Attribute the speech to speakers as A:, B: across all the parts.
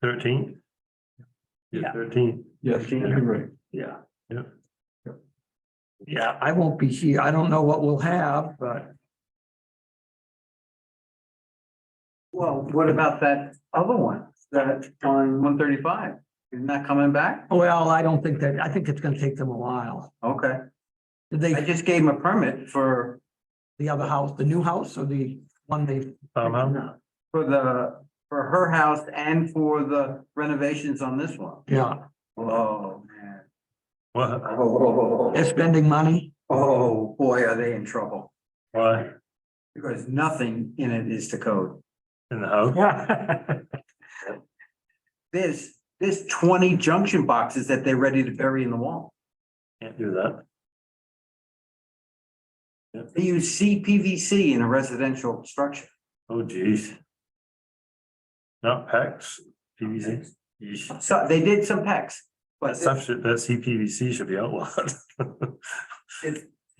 A: Thirteenth?
B: Yeah.
A: Thirteenth,
C: Yes, you're right.
B: Yeah.
A: Yeah.
B: Yeah, I won't be here. I don't know what we'll have, but
D: Well, what about that other one that on one thirty-five? Isn't that coming back?
B: well, I don't think that, I think it's gonna take them a while.
D: Okay,
B: Did
D: I
B: they,
D: just gave him a permit for,
B: the other house, the new house or the one they?
A: farmhouse,
D: for the, for her house and for the renovations on this one.
B: Yeah,
D: Oh, man.
A: what,
D: Oh,
B: they're spending money.
D: oh, boy, are they in trouble
A: why,
D: because nothing in it is to code.
A: in the house?
D: There's, there's twenty junction boxes that they're ready to bury in the wall.
A: Can't do that,
D: They use CPVC in a residential structure.
A: oh geez. Not PEX, PVC, Yeesh.
D: So they did some pecs, but
A: that stuff should, that CPVC should be outlawed.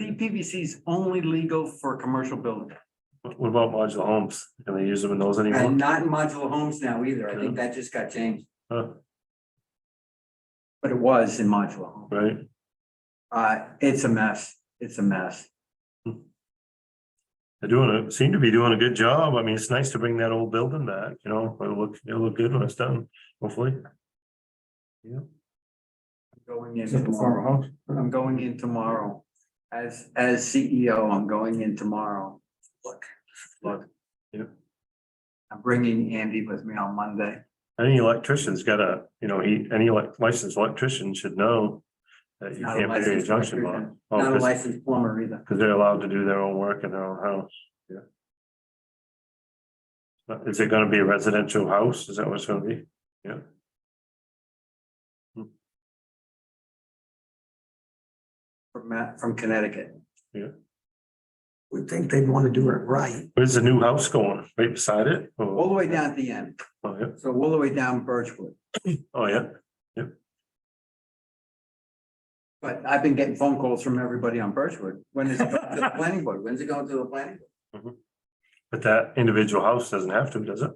D: CPVC is only legal for commercial buildings
A: What about modular homes, can they use them in those anymore?
D: and not in modular homes now either. I think that just got changed.
A: Huh,
D: But it was in modular homes.
A: Right,
D: Uh, it's a mess. It's a mess.
A: they're doing, a seem to be doing a good job, I mean, it's nice to bring that old building back, you know, it'll look, it'll look good when it's done, hopefully.
D: Going in tomorrow. I'm going in tomorrow. As, as CEO, I'm going in tomorrow. Look, look.
A: Yep.
D: I'm bringing Andy with me on Monday.
A: Any electrician's got a, you know, he, any elec- licensed electrician should know that you
D: Not a
A: can't put a
D: licensed
A: junction box.
D: electrician,
A: Oh,
D: Not a
A: 'cause-
D: licensed plumber either.
A: Cause they're allowed to do their own work in their own house. Yeah. But is it gonna be a residential house? Is that what it's gonna be? Yeah.
D: From Matt, from Connecticut.
B: We think they'd want to do it right.
A: Where's the new house going? Right beside it? Or-
D: All the way down at the end.
A: Oh, yeah,
D: So all the way down Birchwood.
A: oh, yeah,
D: But I've been getting phone calls from everybody on Birchwood. When is it going to the planning board? When's it going to the planning? board?
A: but that individual house doesn't have to, does it?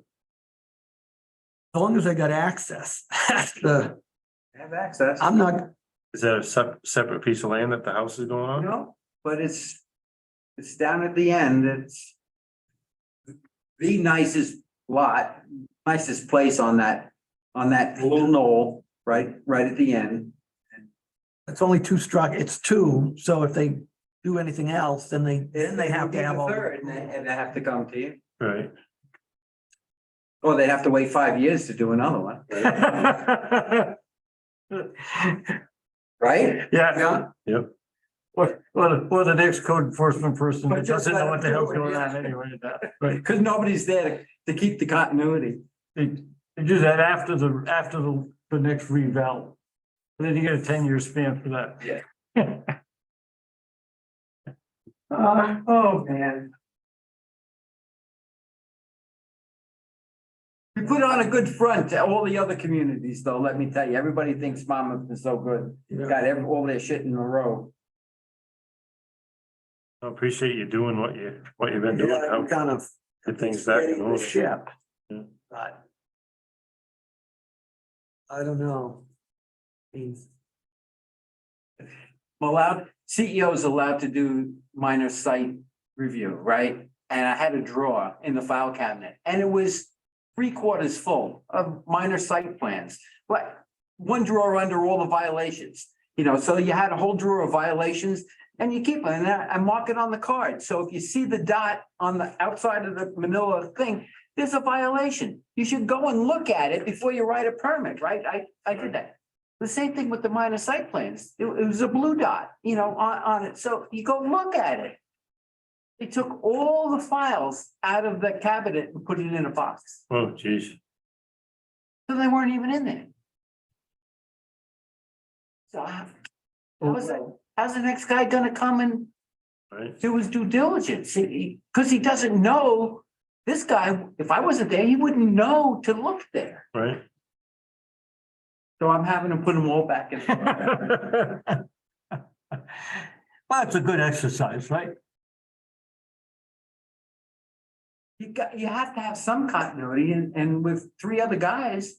B: As long as they got access. That's the,
D: They Have access.
B: I'm not,
A: Is that a sep- separate piece of land that the house is going on?
D: No, but it's, it's down at the end, it's. The nicest lot, nicest place on that, on that little knoll, right, right at the end.
B: it's only two struck, it's two, so if they do anything else, then they, then they have to have all.
D: Third, And they, and they have to come to you,
A: Right.
D: or they have to wait five years to do another one, right?
A: Yeah. Yep.
C: What, what, what the next code enforcement person
D: But
C: that doesn't
D: just
C: know what the hell's
D: let 'em do it.
C: going on anyway. that-
D: Cause nobody's there to to keep the continuity.
C: They, they do that after the, after the, the next revale. And Then you get a ten-year span for that.
D: Uh, oh, man. We put on a good front to all the other communities, though, let me tell you, everybody thinks Monmouth is so good,
B: Yeah.
D: got every, all their shit in a row.
A: I appreciate you doing what you, what you've been doing.
B: Yeah,
A: How
B: Kind of
A: Good things that.
B: steady the ship.
A: Yeah.
B: But. I don't know. I mean,
D: Allowed, CEO is allowed to do minor site review, right? And I had a drawer in the file cabinet, and it was three quarters full of minor site plans. Like, one drawer under all the violations, you know, so you had a whole drawer of violations and you keep it, and I, I mark it on the card. So if you see the dot on the outside of the manila thing, there's a violation. You should go and look at it before you write a permit, right? I, I did that. The same thing with the minor site plans. It, it was a blue dot, you know, on, on it. So you go look at it. They took all the files out of the cabinet and put it in a box.
A: Oh, geez.
D: So they weren't even in there. So uh, how, how's, the- how's the next guy gonna come and
A: Right,
D: do his due diligence? He- Cause he doesn't know, this guy, if I wasn't there, he wouldn't know to look there.
A: right.
D: So I'm having to put them all back in.
C: Well, it's a good exercise, right?
D: You got, you have to have some continuity and, and with three other guys,